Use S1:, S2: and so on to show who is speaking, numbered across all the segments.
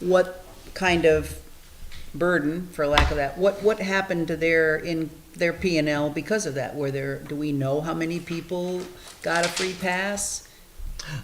S1: what kind of burden, for lack of that, what, what happened to their, in their P and L because of that? Were there, do we know how many people got a free pass?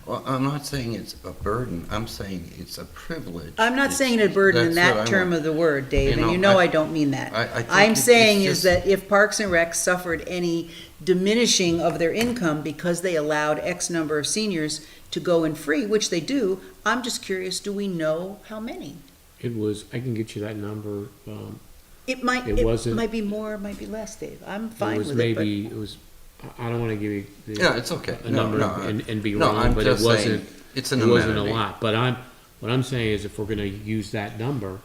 S2: Well, I'm not saying it's a burden, I'm saying it's a privilege.
S1: I'm not
S2: It's-
S1: saying a burden in
S2: that's what
S1: that
S2: I
S1: term
S2: want.
S1: of the word, Dave,
S2: You
S1: and
S2: know,
S1: you know
S2: I-
S1: I don't mean that.
S2: I- I think it-
S1: I'm
S2: it's
S1: saying is
S2: just-
S1: that if Parks and Rec suffered any diminishing of their income because they allowed X number of seniors to go in free, which they do, I'm just curious, do we know how many?
S3: It was, I can get you that number. um,
S1: It might,
S3: It
S1: it
S3: wasn't-
S1: might be more, it might be less, Dave. I'm
S3: It
S1: fine
S3: was
S1: with it, but
S3: maybe, it was, I- I don't want to give you. the-
S2: Yeah, it's okay.
S3: A
S2: No,
S3: number
S2: no,
S3: and, and be
S2: no,
S3: wrong,
S2: I'm
S3: but it
S2: just saying
S3: wasn't,
S2: It's an
S3: it wasn't a
S2: amenity.
S3: lot. But I'm, what I'm saying is if we're going to use that number,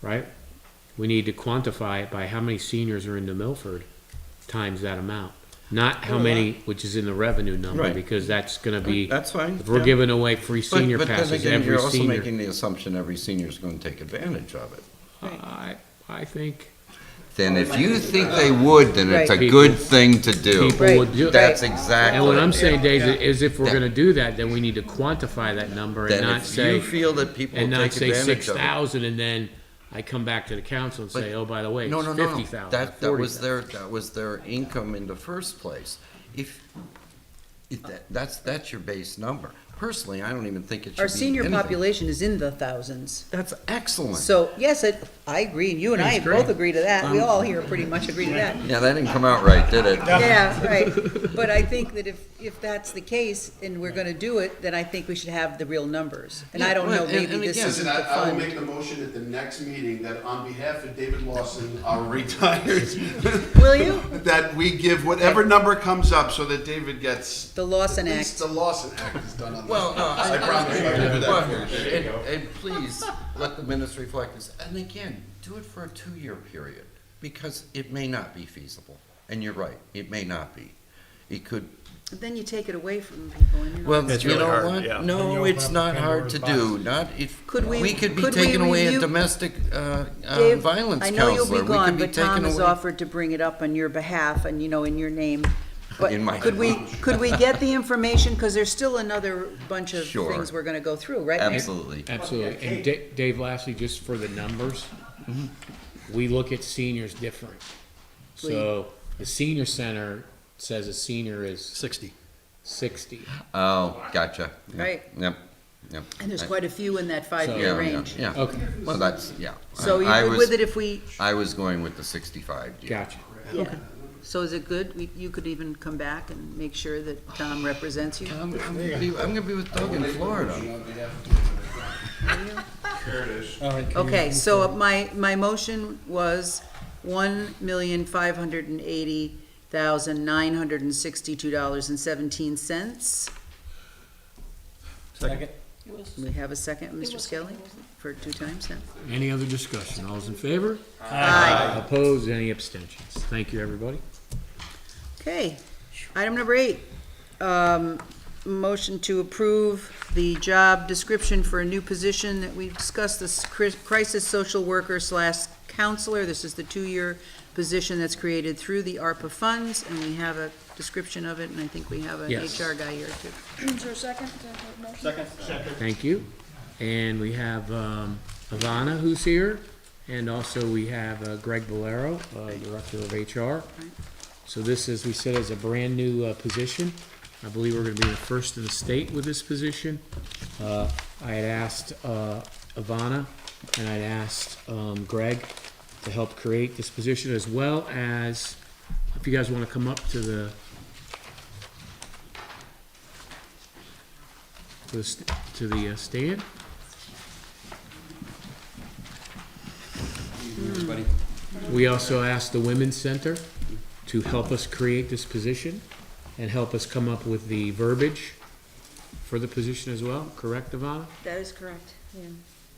S3: right? We need to quantify it by how many seniors are in New Milford times that amount. Not how
S2: Well,
S3: many, which is in the revenue number,
S2: Right.
S3: because that's going to be,
S2: That's fine.
S3: if we're
S2: yeah.
S3: giving away free
S2: But-
S3: senior
S2: But
S3: passes,
S2: then again,
S3: every
S2: you're also
S3: senior.
S2: making the assumption every senior's gonna take advantage of it.
S3: I, I think
S2: Then
S1: Oh,
S2: if you think they would, then it's a good thing to do.
S3: people would do.
S2: That's exactly.
S3: And what I'm saying, Dave,
S4: Yeah.
S3: is if we're
S2: Yeah.
S3: gonna do that, then we need to quantify that number and
S2: Then
S3: not
S2: if you
S3: say,
S2: feel that people
S3: and
S2: will
S3: not
S2: take
S3: say six
S2: advantage of it.
S3: thousand, and then I come back to the council and say, oh, by the way,
S2: No, no,
S3: it's
S2: no,
S3: fifty
S2: no.
S3: thousand,
S2: That, that
S3: forty
S2: was
S3: thousand.
S2: their, that was their income in the first place. If, if that, that's, that's your base number. Personally, I don't even think it should be
S1: our senior
S2: anything.
S1: population is in the thousands.
S2: That's excellent.
S1: So, yes, it, I agree, and you and I
S3: That's
S1: both
S3: great.
S1: agree to that.
S2: Um,
S1: We all here pretty much agree to that.
S2: Yeah, that didn't come out right, did it?
S1: Yeah, right. But I think that if, if that's the case and we're gonna do it, then I think we should have the real numbers. And I
S2: Yeah,
S1: don't know,
S2: well, and-
S1: maybe
S2: and
S1: this
S2: again-
S1: isn't
S4: Listen,
S1: the
S4: I, I will
S1: fund.
S4: make the motion at the next meeting that on behalf of David Lawson, our retired,
S1: Will you?
S4: that we give whatever number comes up so that David gets,
S1: The Lawson
S4: at least
S1: Act.
S4: the Lawson Act is done on that.
S2: Well, no, I,
S4: I promise you, I will do that for you.
S2: But- and, and please, let the minutes reflect this. And again, do it for a two-year period, because it may not be feasible. And you're right, it may not be. It could
S1: But Then you take it away from people and you're
S2: Well,
S1: not-
S5: It's
S2: you
S5: really
S2: know
S5: hard, yeah.
S2: what?
S5: Then you
S2: No,
S5: open
S2: it's
S5: up
S2: not hard
S5: Pandora's
S2: to
S5: box.
S2: do, not if,
S1: Could we-
S2: we could be
S1: could we
S2: taking away a
S1: review-
S2: domestic, uh, uh,
S1: Dave,
S2: violence
S1: I
S2: counselor.
S1: know you'll be
S2: We could
S1: gone,
S2: be
S1: but Tom
S2: taking
S1: has
S2: away-
S1: offered to bring it up on your behalf and, you know, in your name.
S2: In
S1: But
S2: my
S1: could we,
S2: name.
S1: could we get the information, because there's still another bunch of
S2: Sure.
S1: things we're gonna go through, right?
S2: Absolutely.
S3: Absolutely, and Da- Dave, lastly, just for the numbers,
S2: Mm-hmm.
S3: we look at seniors different. So, the senior center says a senior is
S5: Sixty.
S3: sixty,
S2: Oh, gotcha. Yep,
S1: Right.
S2: Yep, yep.
S1: And there's
S2: I-
S1: quite a few in that
S2: Yeah,
S1: five-year
S2: yeah,
S1: range.
S2: Yeah,
S3: okay,
S2: so that's, yeah.
S1: So
S2: I- I
S1: you good
S2: was-
S1: with it if we,
S2: I was going with the sixty-five deal.
S3: gotcha.
S1: yeah. So is it good? We- You could even come back and make sure that Tom represents you?
S2: I'm, I'm gonna be, I'm gonna be with Doug in Florida.
S4: On behalf of-
S1: Okay, so my, my motion was one million five hundred and eighty thousand nine hundred and sixty-two dollars and seventeen cents.
S5: Second.
S1: We have a second, Mr. Skelly, for two times now.
S3: Any other discussion, all's in favor?
S1: Aye.
S3: Opposed, any abstentions? Thank you, everybody.
S1: Okay, item number eight, um, motion to approve the job description for a new position that we discussed, this cri- crisis social worker slash counselor. This is the two-year position that's created through the ARPA funds, and we have a description of it, and I think we have an
S3: Yes.
S1: HR guy here too.
S6: Is there a second to that motion? Second.
S3: Thank you. And we have um, Ivana, who's here, and also we have uh, Greg Valero, uh, Director of HR. So this, as we said, is a brand-new uh, position. I believe we're going to be the first in the state with this position. Uh, I had asked uh, Ivana, and I'd asked um, Greg to help create this position, as well as, if you guys want to come up to the, to the st- to the uh, stand. We also asked the Women's Center to help us create this position and help us come up with the verbiage for the position as well, correct, Ivana?
S7: That is correct, yeah.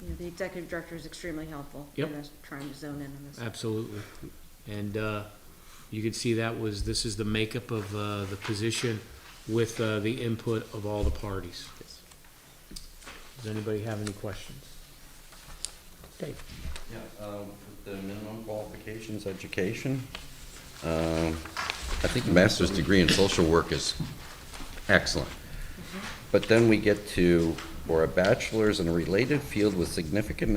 S7: You know, the executive director is extremely helpful.
S3: Yep.
S7: in us Trying to zone in on this.
S3: Absolutely. And uh, you could see that was, this is the makeup of uh, the position with uh, the input of all the parties. Does anybody have any questions? Dave?
S2: Yeah, um, with the minimum qualifications, education. um, I think a master's degree in social work is excellent. But then we get to, or a bachelor's in a related field with significant